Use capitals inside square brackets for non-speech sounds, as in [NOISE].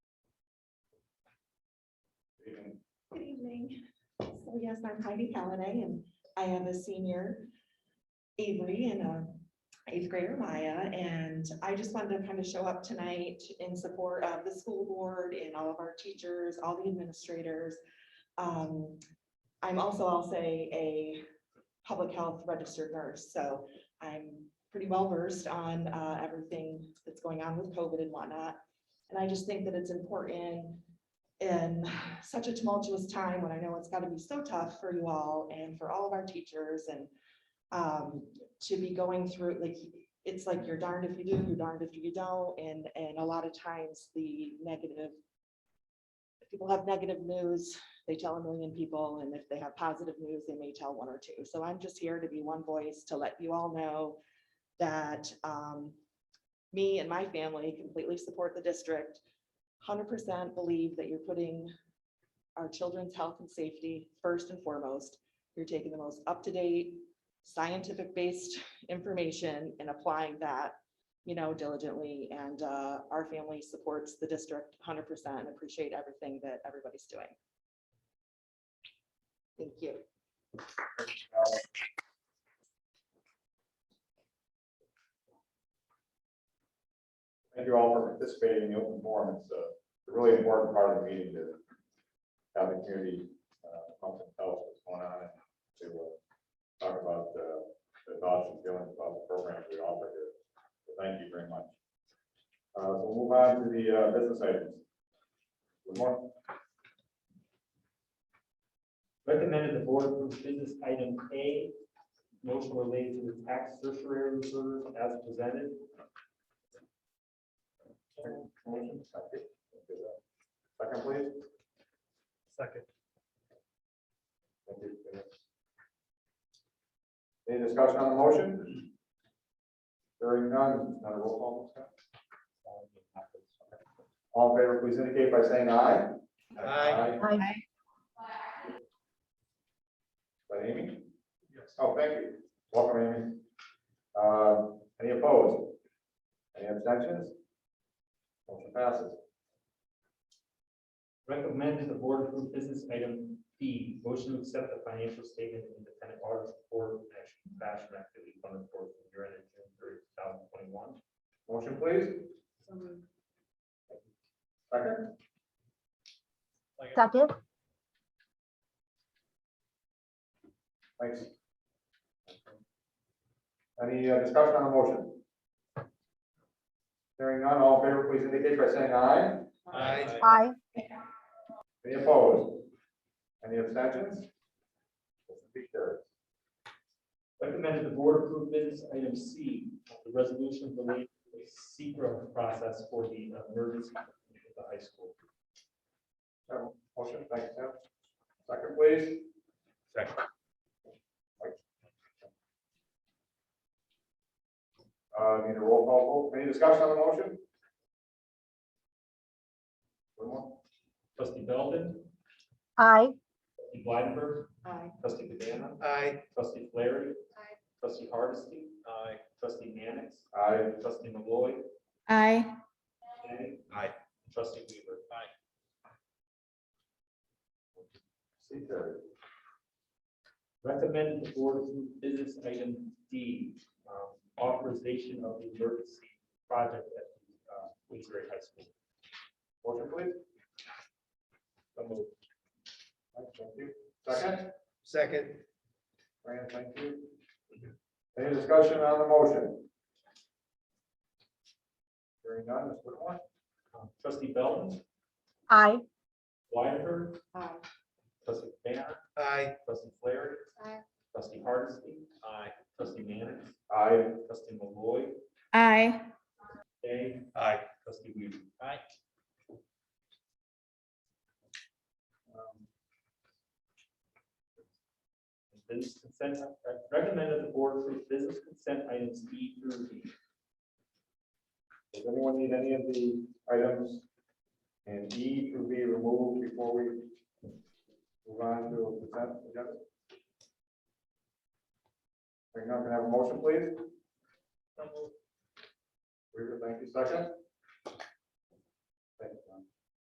Good evening. So yes, I'm Heidi Halliday and I have a senior Avery and a eighth grader Maya. And I just wanted to kind of show up tonight in support of the school board and all of our teachers, all the administrators. Um, I'm also, I'll say, a public health registered nurse, so I'm pretty well versed on uh, everything that's going on with COVID and whatnot. And I just think that it's important in such a tumultuous time when I know it's gotta be so tough for you all and for all of our teachers and um, to be going through, like, it's like you're darned if you do, you're darned if you don't, and, and a lot of times the negative people have negative news, they tell a million people, and if they have positive news, they may tell one or two. So I'm just here to be one voice to let you all know that um, me and my family completely support the district hundred percent believe that you're putting our children's health and safety first and foremost. You're taking the most up-to-date, scientific-based [LAUGHS] information and applying that, you know, diligently. And uh, our family supports the district hundred percent and appreciate everything that everybody's doing. Thank you. Thank you all for participating in the open forum. It's a really important part of the meeting to have the community uh, pump and tell what's going on and to uh, talk about uh, the thoughts and feelings about the programs we offer here. So thank you very much. Uh, So we'll move on to the uh, business items. Good morning. Recommended the board approve business item A, motion related to the tax surcharge reserve as presented. Motion, second. Second, please. Second. Thank you. Any discussion on the motion? Hearing none, not a roll call. Scott? All in favor, please indicate by saying aye. Aye. By Amy? Yes. Oh, thank you. Welcome, Amy. Uh, Any opposed? Any abstentions? Motion passes. Recommended the board approve business item B, motion to accept the financial statement and independent audit report and action fashion activity fund report for year ended June 30, 2021. Motion, please. Second, Second, thanks. Any uh, discussion on the motion? Hearing none, all in favor, please indicate by saying aye. Aye. aye, Any opposed? Any abstentions? Motion be carried. Recommended the board approve business item C, the resolution related to the secret process for the emergency at the high school. So, Motion, thank you, Tim. Second, please. Second. Uh, need a roll call vote. Any discussion on the motion? One more. Trustee Belvin, aye, trustee Blidenberg, Aye. trustee Cabana, Aye. trustee Flaherty. Aye. Trustee Hardesty, Aye. trustee Mannix, Aye. trustee Malloy, Aye. and Aye. trustee Weaver. Aye. See, carried. Recommended the board approve business item D, um, authorization of the emergency project at the uh, Queensbury High School. Motion, please. So moved. Thank you. Second, Second. Fran, thank you. Any discussion on the motion? Hearing none, Ms. Whitmore? Um, Trustee Belvin, aye, Wyatt, Aye. trustee Cabana, Aye. trustee Flaherty. Aye. Trustee Hardesty, Aye. trustee Mannix, Aye. trustee Malloy, Aye. Day, Aye. trustee Weaver. Aye. Um, Business consent, uh, uh, recommended the board approve business consent items E through D. Does anyone need any of the items? And E to be removed before we move on to a consent agenda? We're not gonna have a motion, please? Weaver, thank you, second? Thank you, Tom.